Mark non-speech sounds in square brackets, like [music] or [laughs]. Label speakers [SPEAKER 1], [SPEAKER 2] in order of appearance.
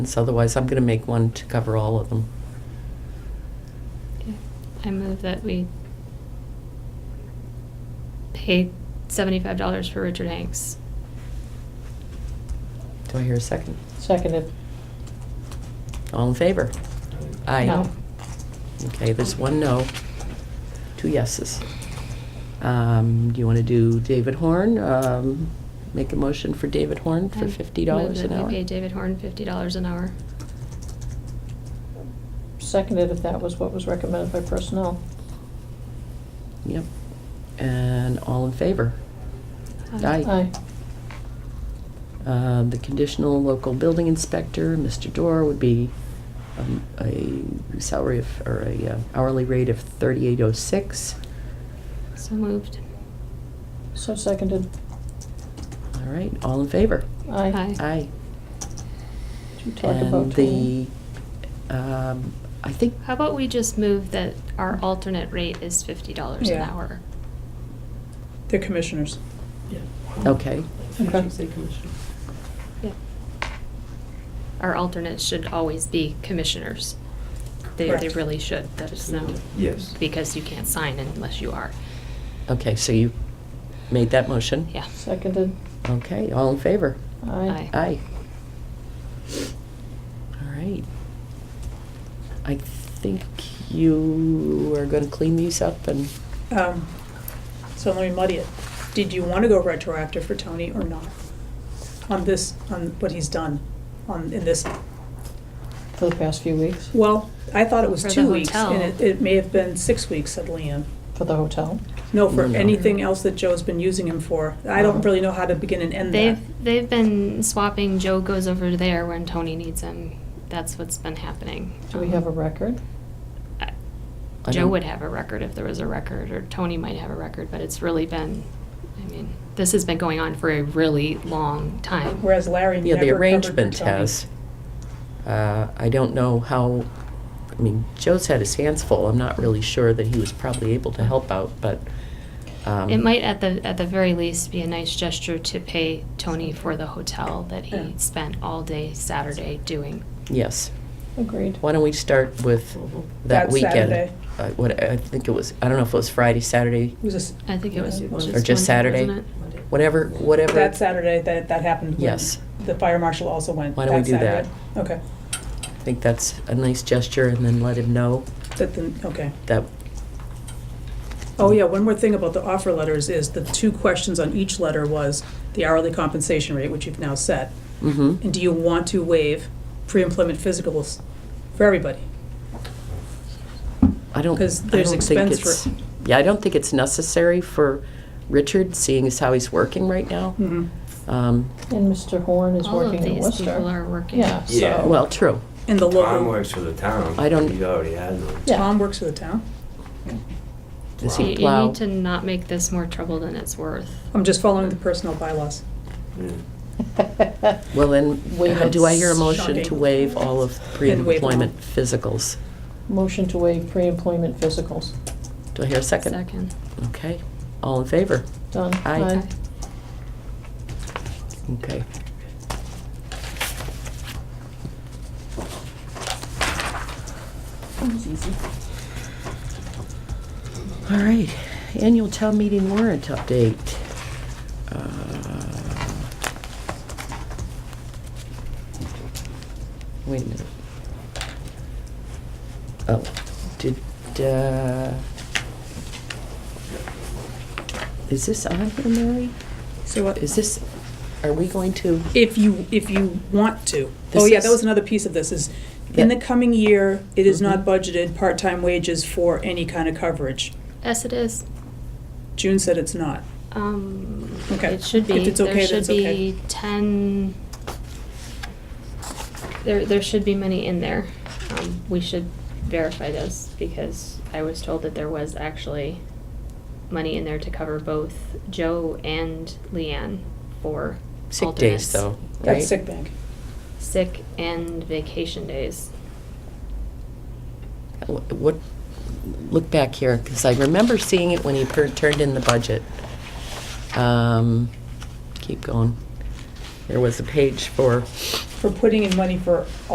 [SPEAKER 1] So otherwise, I'm going to make one to cover all of them.
[SPEAKER 2] Okay. I move that we pay seventy-five dollars for Richard Hanks.
[SPEAKER 1] Do I hear a second?
[SPEAKER 3] Seconded.
[SPEAKER 1] All in favor? Aye.
[SPEAKER 2] No.
[SPEAKER 1] Okay, there's one no, two yeses. Um, Do you want to do David Horn? Um, Make a motion for David Horn
[SPEAKER 2] I
[SPEAKER 1] for fifty dollars an
[SPEAKER 2] move that
[SPEAKER 1] hour?
[SPEAKER 2] We pay David Horn fifty dollars an hour.
[SPEAKER 3] Seconded if that was what was recommended by personnel.
[SPEAKER 1] Yep. And all in favor? Aye.
[SPEAKER 3] Aye.
[SPEAKER 1] Um, The conditional local building inspector, Mr. Dorr, would be um, a salary of, or a uh, hourly rate of thirty-eight oh six.
[SPEAKER 2] So moved.
[SPEAKER 3] So seconded.
[SPEAKER 1] All right, all in favor?
[SPEAKER 3] Aye.
[SPEAKER 2] Aye.
[SPEAKER 1] Aye.
[SPEAKER 3] Did you talk about
[SPEAKER 1] And the, um, I think,
[SPEAKER 2] How about we just move that our alternate rate is fifty dollars an
[SPEAKER 4] Yeah.
[SPEAKER 2] hour?
[SPEAKER 4] They're commissioners.
[SPEAKER 1] okay,
[SPEAKER 3] Okay.
[SPEAKER 2] Yeah. Our alternates should always be commissioners. They, they
[SPEAKER 4] Correct.
[SPEAKER 2] really should, that is no,
[SPEAKER 5] Yes.
[SPEAKER 2] because you can't sign unless you are,
[SPEAKER 1] okay, so you made that motion?
[SPEAKER 2] yeah.
[SPEAKER 3] Seconded.
[SPEAKER 1] Okay, all in favor?
[SPEAKER 3] Aye.
[SPEAKER 2] Aye.
[SPEAKER 1] Aye. All right. I think you are gonna clean these up and,
[SPEAKER 4] Um, So let me muddy it. Did you want to go retroactive for Tony or not? On this, on what he's done, on, in this,
[SPEAKER 3] For the past few weeks,
[SPEAKER 4] well, I thought it was
[SPEAKER 2] For the
[SPEAKER 4] two weeks.
[SPEAKER 2] hotel.
[SPEAKER 4] And it, it may have been six weeks, said Leanne.
[SPEAKER 3] for the hotel.
[SPEAKER 4] No, for
[SPEAKER 1] No, Oh. no.
[SPEAKER 4] anything else that Joe's been using him for. I don't really know how to begin and end that.
[SPEAKER 2] They've, they've been swapping, Joe goes over there when Tony needs him, that's what's been happening.
[SPEAKER 3] Do we have a record?
[SPEAKER 2] I-
[SPEAKER 1] I
[SPEAKER 2] Joe
[SPEAKER 1] don't-
[SPEAKER 2] would have a record if there was a record, or Tony might have a record, but it's really been, I mean, this has been going on for a really long time.
[SPEAKER 4] Whereas Larry
[SPEAKER 1] yeah, the
[SPEAKER 4] never covered for
[SPEAKER 1] arrangement
[SPEAKER 4] Tony.
[SPEAKER 1] has. Uh, I don't know how, I mean, Joe's had his hands full, I'm not really sure that he was probably able to help out, but, um.
[SPEAKER 2] It might at the, at the very least be a nice gesture to pay Tony for the hotel that
[SPEAKER 4] Yeah.
[SPEAKER 2] he spent all day Saturday doing.
[SPEAKER 1] Yes.
[SPEAKER 3] Agreed.
[SPEAKER 1] Why don't we start with that
[SPEAKER 4] That
[SPEAKER 1] weekend?
[SPEAKER 4] Saturday.
[SPEAKER 1] Uh, What, I think it was, I don't know if it was Friday, Saturday,
[SPEAKER 4] It was just,
[SPEAKER 2] I think it was
[SPEAKER 4] Or
[SPEAKER 2] just.
[SPEAKER 1] or just Saturday?
[SPEAKER 2] Monday, wasn't it?
[SPEAKER 1] Whatever, whatever.
[SPEAKER 4] that Saturday, that, that happened. when
[SPEAKER 1] Yes.
[SPEAKER 4] The fire marshal also went.
[SPEAKER 1] Why don't we do that?
[SPEAKER 4] Saturday. Okay,
[SPEAKER 1] I think that's a nice gesture and then let him know
[SPEAKER 4] that, then, okay.
[SPEAKER 1] that,
[SPEAKER 4] Oh, yeah, one more thing about the offer letters is the two questions on each letter was the hourly compensation rate, which you've now set,
[SPEAKER 1] mm-hmm.
[SPEAKER 4] and do you want to waive pre-employment physicals for everybody?
[SPEAKER 1] I don't, I
[SPEAKER 4] 'Cause there's
[SPEAKER 1] don't think it's,
[SPEAKER 4] expense for-
[SPEAKER 1] yeah, I don't think it's necessary for Richard, seeing as how he's working right now.
[SPEAKER 4] Mhm.
[SPEAKER 1] Um,
[SPEAKER 3] And Mr. Horn is
[SPEAKER 2] All of
[SPEAKER 3] working in
[SPEAKER 2] these
[SPEAKER 3] Worcester.
[SPEAKER 2] people are working.
[SPEAKER 3] Yeah, so. [laughs]
[SPEAKER 5] Yeah.
[SPEAKER 1] Well, true.
[SPEAKER 4] And the
[SPEAKER 5] Tom
[SPEAKER 4] local,
[SPEAKER 5] works for the town.
[SPEAKER 1] I don't-
[SPEAKER 5] He's already had one.
[SPEAKER 3] Yeah.
[SPEAKER 4] Tom works for the town?
[SPEAKER 1] Does
[SPEAKER 2] You
[SPEAKER 1] he
[SPEAKER 2] you
[SPEAKER 1] plow?
[SPEAKER 2] need to not make this more trouble than it's worth.
[SPEAKER 4] I'm just following the personnel bylaws.
[SPEAKER 5] Yeah.
[SPEAKER 1] Well, then,
[SPEAKER 3] Waive
[SPEAKER 1] how do I hear a
[SPEAKER 3] it's
[SPEAKER 1] motion to
[SPEAKER 4] shocking.
[SPEAKER 1] waive all of
[SPEAKER 4] And waive them all.
[SPEAKER 1] pre-employment physicals?
[SPEAKER 3] Motion to waive pre-employment physicals.
[SPEAKER 1] Do I hear a second?
[SPEAKER 2] Second.
[SPEAKER 1] Okay, all in favor?
[SPEAKER 3] Done.
[SPEAKER 1] Aye. Okay.
[SPEAKER 2] Okay.
[SPEAKER 1] All right, annual town meeting warrant update. Uh, Wait a minute. Oh, did, uh, is this on here, Mary?
[SPEAKER 4] So what-
[SPEAKER 1] Is this, are we going to?
[SPEAKER 4] if you, if you want to.
[SPEAKER 1] This
[SPEAKER 4] Oh, yeah,
[SPEAKER 1] is-
[SPEAKER 4] that was another piece of this, is in the
[SPEAKER 1] Yeah.
[SPEAKER 4] coming year, it is
[SPEAKER 1] Mhm.
[SPEAKER 4] not budgeted part-time wages for any kind of coverage.
[SPEAKER 2] Yes, it is.
[SPEAKER 4] June said it's not.
[SPEAKER 2] Um,
[SPEAKER 4] Okay.
[SPEAKER 2] It should be.
[SPEAKER 4] If it's okay,
[SPEAKER 2] There should
[SPEAKER 4] that's okay.
[SPEAKER 2] be ten. There, there should be money in there. Um, we should verify this because I was told that there was actually money in there to cover both Joe and Leanne for
[SPEAKER 1] Sick
[SPEAKER 2] alternates.
[SPEAKER 1] days, though, right?
[SPEAKER 4] That's sick bank.
[SPEAKER 2] Sick and vacation days.
[SPEAKER 1] Wh- What, look back here, because I remember seeing it when he per- turned in the budget. Um, Keep going. There was a page for
[SPEAKER 4] For putting in money for